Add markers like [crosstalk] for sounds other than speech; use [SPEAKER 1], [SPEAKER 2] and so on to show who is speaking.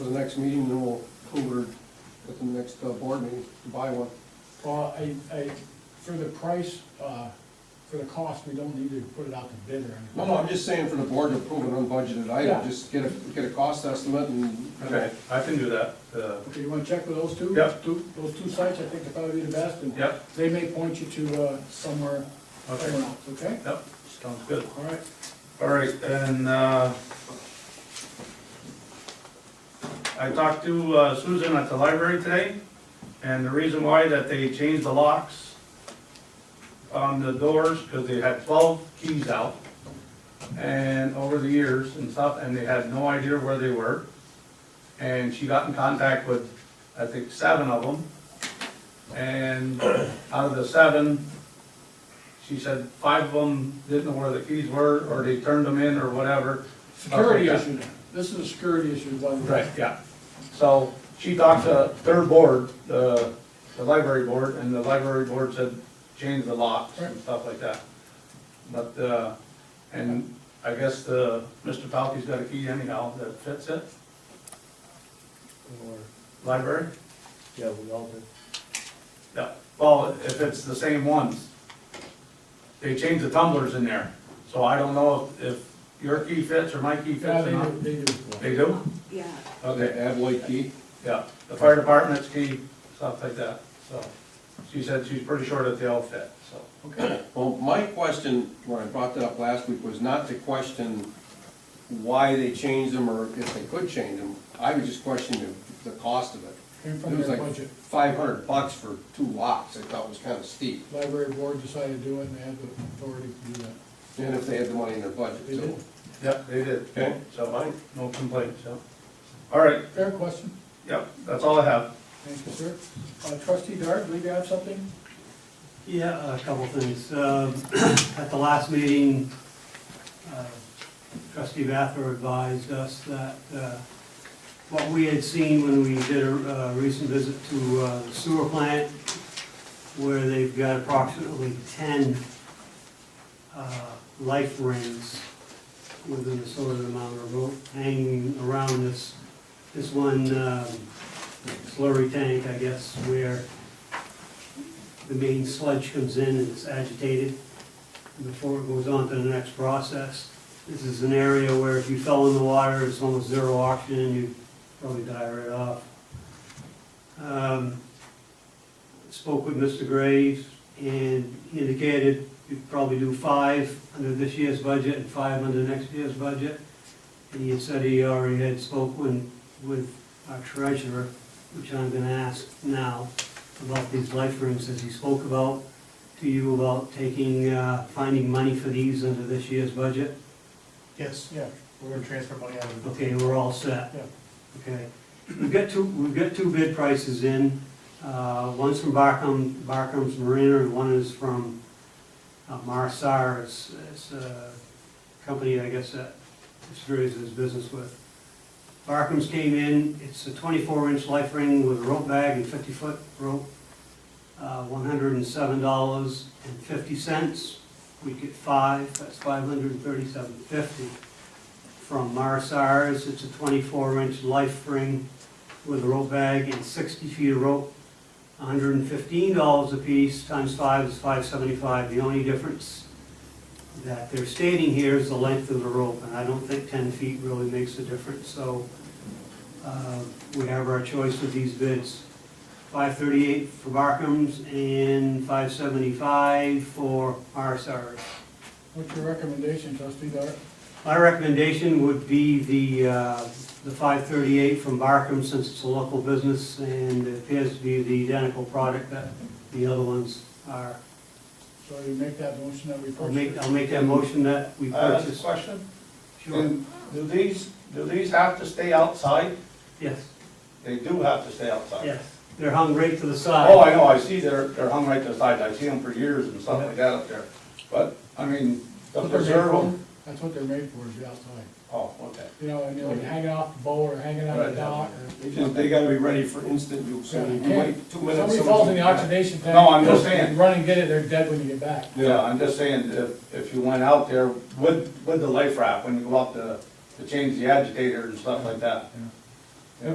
[SPEAKER 1] the next meeting, then we'll over at the next uh, board meeting to buy one.
[SPEAKER 2] Well, I, I, for the price, uh, for the cost, we don't need to put it out to bid or anything.
[SPEAKER 1] No, no, I'm just saying for the board to approve an unbudgeted
[SPEAKER 2] Yeah.
[SPEAKER 1] item, just get a, get a cost estimate and.
[SPEAKER 3] Okay, I can do that. Uh,
[SPEAKER 2] Okay, you wanna check with those two?
[SPEAKER 3] Yep.
[SPEAKER 2] Two, those two sites, I think they probably be the best, and
[SPEAKER 3] Yep,
[SPEAKER 2] they may point you to, uh, somewhere,
[SPEAKER 3] Okay.
[SPEAKER 2] somewhere else, okay?
[SPEAKER 3] yep, sounds good.
[SPEAKER 2] All right,
[SPEAKER 3] All right, and uh, I talked to uh, Susan at the library today, and the reason why that they changed the locks on the doors, because they had 12 keys out, and over the years and stuff, and they had no idea where they were. And she got in contact with, I think, seven of them. And out of the seven, she said five of them didn't know where the keys were, or they turned them in, or whatever.
[SPEAKER 2] security
[SPEAKER 3] Okay.
[SPEAKER 2] issue now, this is a security issue, by the way.
[SPEAKER 3] Right, yeah. So she talked to their board, the, the library board, and the library board said, change the locks and stuff like that. But, uh, and I guess the, Mr. Palkey's got a key anyhow that fits it,
[SPEAKER 4] Or,
[SPEAKER 3] library?
[SPEAKER 4] yeah, we all did.
[SPEAKER 3] Yeah, well, if it's the same ones. They changed the tumblers in there, so I don't know if, if your key fits or my key fits
[SPEAKER 2] Yeah,
[SPEAKER 3] or
[SPEAKER 2] they
[SPEAKER 3] not.
[SPEAKER 2] do, they do.
[SPEAKER 3] They do?
[SPEAKER 5] Yeah,
[SPEAKER 3] Okay.
[SPEAKER 1] Okay, Avloy key,
[SPEAKER 3] Yeah, the fire department's key, stuff like that, so. She said she's pretty sure that they all fit, so.
[SPEAKER 2] Okay,
[SPEAKER 1] well, my question, when I brought that up last week, was not to question why they changed them or if they could change them, I was just questioning the, the cost of it.
[SPEAKER 2] came
[SPEAKER 1] It
[SPEAKER 2] from
[SPEAKER 1] was
[SPEAKER 2] their
[SPEAKER 1] like
[SPEAKER 2] budget,
[SPEAKER 1] five hundred bucks for two locks, I thought was kinda steep,
[SPEAKER 2] library board decided to do it, and they had the authority to do that.
[SPEAKER 1] and if they had the money in their budget
[SPEAKER 2] They
[SPEAKER 1] too.
[SPEAKER 2] did.
[SPEAKER 3] Yep, they did.
[SPEAKER 1] Okay.
[SPEAKER 3] So, no complaints, so. All right,
[SPEAKER 2] Fair question,
[SPEAKER 3] yep, that's all I have.
[SPEAKER 2] thank you, sir. Uh, trustee Dart, believe you have something?
[SPEAKER 6] Yeah, a couple things. Um, [clears throat] At the last meeting, uh, trustee Bather advised us that uh, what we had seen when we did a uh, recent visit to uh, sewer plant, where they've got approximately 10 uh, life rings within a certain amount of rope hanging around this, this one um, slurry tank, I guess, where the main sludge comes in and it's agitated before it goes on to the next process. This is an area where if you fell in the water, it's almost zero oxygen, you'd probably die right off. Um, Spoke with Mr. Graves and he indicated you'd probably do five under this year's budget and five under next year's budget. And he had said he already had spoken with our treasurer, which I'm gonna ask now about these life rooms, as he spoke about to you about taking, uh, finding money for these under this year's budget.
[SPEAKER 4] Yes,
[SPEAKER 2] Yeah.
[SPEAKER 4] we're gonna transfer money out of
[SPEAKER 6] Okay, we're all set.
[SPEAKER 2] Yeah.
[SPEAKER 6] Okay. We've got two, we've got two bid prices in. Uh, One's from Barcom, Barcom's Marina, and one is from uh, Marsar. It's, it's a company, I guess, that Series does business with. Barcom's came in, it's a twenty-four inch life ring with a rope bag and fifty-foot rope. uh, One hundred and seven dollars and fifty cents. We get five, that's five hundred and thirty-seven fifty from Marsars. It's a 24-inch life ring with a rope bag and 60 feet of rope, $115 a piece, times five is 575. The only difference that they're stating here is the length of the rope, and I don't think 10 feet really makes a difference. So uh, we have our choice with these bids. 538 for Barkham's and 575 for Marsars.
[SPEAKER 2] What's your recommendation, trustee Dart?
[SPEAKER 6] My recommendation would be the, uh, the five thirty-eight from Barkham, since it's a local business and it appears to be the identical product that the other ones are.
[SPEAKER 2] So you make that motion that we
[SPEAKER 6] I'll make,
[SPEAKER 2] purchase.
[SPEAKER 6] I'll make that motion that we
[SPEAKER 3] Uh, this
[SPEAKER 6] purchase.
[SPEAKER 3] question,
[SPEAKER 6] Sure,
[SPEAKER 3] do do these, do these have to stay outside?
[SPEAKER 6] yes,
[SPEAKER 3] They do have to stay outside.
[SPEAKER 6] yes, they're hung right to the
[SPEAKER 3] Oh,
[SPEAKER 6] side.
[SPEAKER 3] I know, I see they're, they're hung right to the sides, I see them for years and stuff like that up there. But, I mean, to preserve them,
[SPEAKER 2] That's what they're made for, is the outside.
[SPEAKER 3] oh, okay.
[SPEAKER 2] You know, and they're hanging off the bow or hanging on the
[SPEAKER 3] Right.
[SPEAKER 2] dock or.
[SPEAKER 1] They just, they gotta be ready for instant use, so you
[SPEAKER 2] Yeah.
[SPEAKER 1] wait two minutes.
[SPEAKER 2] Somebody
[SPEAKER 1] someone's-
[SPEAKER 2] falls in the oxidation tank.
[SPEAKER 3] No, I'm just saying.
[SPEAKER 2] you Run and get it, they're dead when you get back.
[SPEAKER 3] Yeah, I'm just saying, if, if you went out there with, with the life raft, when you go out to, to change the agitator and stuff like that,